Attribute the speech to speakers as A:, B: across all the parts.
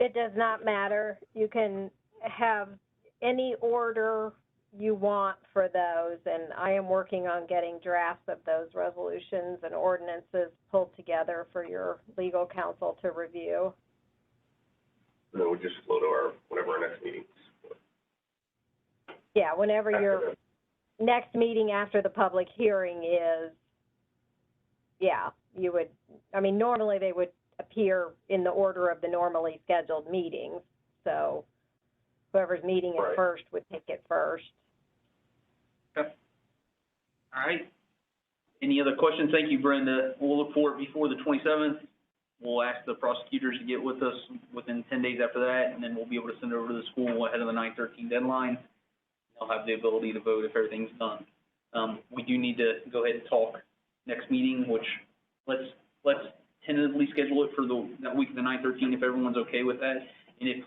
A: It does not matter. You can have any order you want for those, and I am working on getting drafts of those resolutions and ordinances pulled together for your legal counsel to review.
B: And then we just flow to our, whatever our next meeting.
A: Yeah, whenever your
B: After
A: next meeting after the public hearing is, yeah, you would, I mean, normally they would appear in the order of the normally scheduled meetings. So whoever's meeting
B: Right.
A: it first would take it first.
C: All right. Any other questions? Thank you, Brenda. We'll look for it before the twenty-seventh. We'll ask the prosecutors to get with us within ten days after that, and then we'll be able to send it over to the school ahead of the nine thirteen deadline. They'll have the ability to vote if everything's done. Um, we do need to go ahead and talk next meeting, which, let's, let's tentatively schedule it for the, that week of the nine thirteen, if everyone's okay with that. And if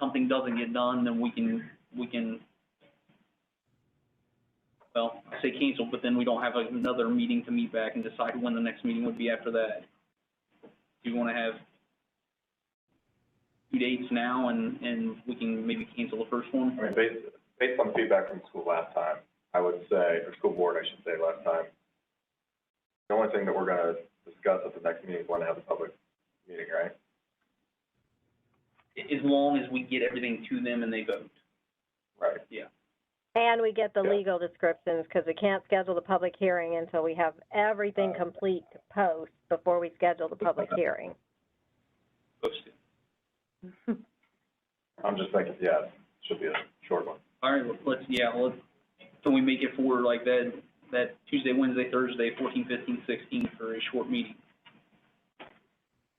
C: something doesn't get done, then we can, we can well, I say cancel, but then we don't have another meeting to meet back and decide when the next meeting would be after that. Do you wanna have two dates now and, and we can maybe cancel the first one?
B: I mean, based, based on feedback from school last time, I would say, or school board, I should say, last time, the only thing that we're gonna discuss at the next meeting is when to have the public meeting, right?
C: A- As long as we get everything to them and they vote.
B: Right.
A: And we get the
B: Yeah.
A: legal descriptions because we can't schedule the public hearing until we have everything complete to post before we schedule the public hearing.
C: Posted.
B: I'm just thinking, yeah, it should be a short one.
C: All right, let's- let's, yeah, let's, can we make it for like that, that Tuesday, Wednesday, Thursday, 14, 15, 16 for a short meeting?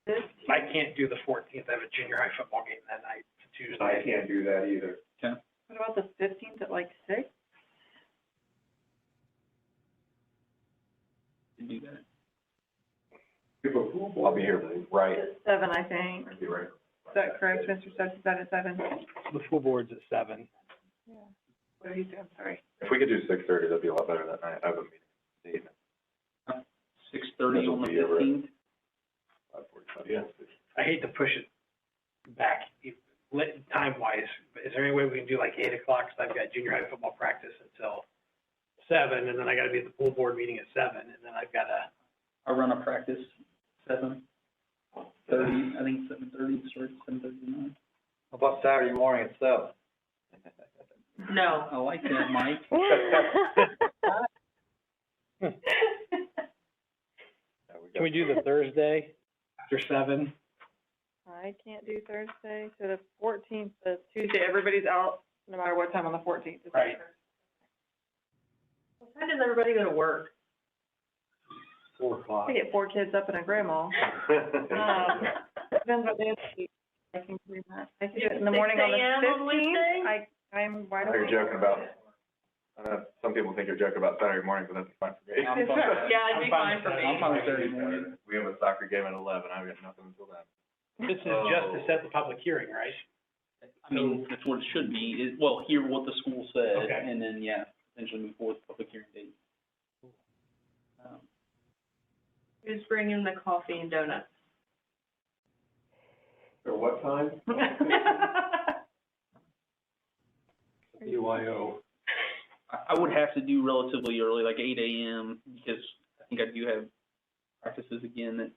D: I can't do the fourteenth, I have a junior high football game that night, it's a Tuesday. I can't do that either.
E: What about the fifteenth at like six?
C: to do that.
B: I'll be here, right,
E: At Seven, I think.
B: be right.
E: Is that correct, Mr. Stubbs? Is that at seven?
D: The full board's at seven.
E: What do you say? I'm sorry.
B: If we could do six thirty, that'd be a lot better that night. I have a meeting at eight,
C: Six thirty on
B: That'll
C: the
B: be over.
C: fifteenth?
B: five forty-five. Yeah.
D: I hate to push it back, if- lit, time-wise, but is there any way we can do like eight o'clock, so I've got junior high football practice until seven, and then I gotta be at the full board meeting at seven, and then I've gotta,
C: I run a practice, seven thirty, I think seven thirty, starts seven thirty-nine.
B: About Saturday morning itself.
E: No.
C: I like that, Mike.
B: Can we do?
D: after seven.
E: I can't do Thursday, so the fourteenth, the Tuesday, everybody's out, no matter what time on the fourteenth.
D: Right.
E: What time does everybody go to work?
D: Four o'clock.
E: I get four kids up and a grandma. Um, Depends what day of the week I can do that. I can do it in the morning on the fifteenth. I, I'm wide
B: I know
E: awake.
B: you're joking about, I know some people think you're joking about Saturday morning, but that's fine for me.
C: I'm fine.
E: Yeah, it'd be
C: I'm fine
E: fine for
C: with that.
E: me.
C: I'm fine with Saturday morning.
B: We have a soccer game at eleven, I've got nothing until then.
D: This is just to set the public hearing, right?
C: I mean, that's what it should be, is, well, hear what the school said,
D: Okay.
C: and then, yeah, potentially move forward with public hearing date. Um,
E: Who's bringing the coffee and donuts?
B: Or what time?
D: BYO.
C: I, I would have to do relatively early, like eight AM, because I think I do have practices again at,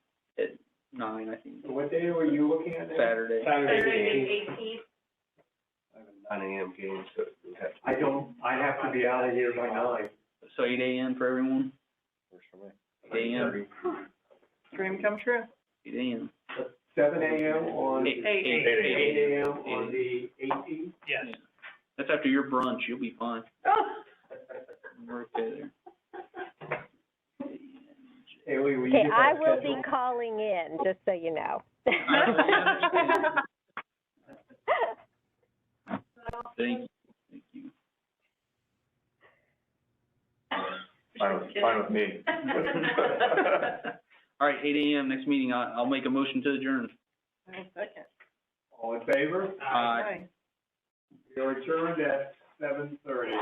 C: at nine, I think,
B: What day were you looking at
C: Saturday.
D: Saturday.
B: I have a nine AM game, so we have to.
D: I don't, I have to be out of here by nine.
C: So eight AM for everyone,
B: Works for me.
C: eight AM,
E: Dream come true.
C: eight AM.
D: Seven AM on.
C: Eight-
E: Eight.
C: eight-
B: Eight
D: AM
C: on
D: the eighteenth? Yes.
C: Yeah. That's after your brunch, you'll be fine. We're okay there.
D: Haley, will
A: Okay, I will be calling in, just so you know.
C: Thank, thank you.
B: Fine with, fine with me.
C: All right, eight AM, next meeting, I, I'll make a motion to adjourn.
E: Second.
D: All in favor?
B: Uh,
C: Aye.
E: Aye.
D: We are adjourned at seven thirty.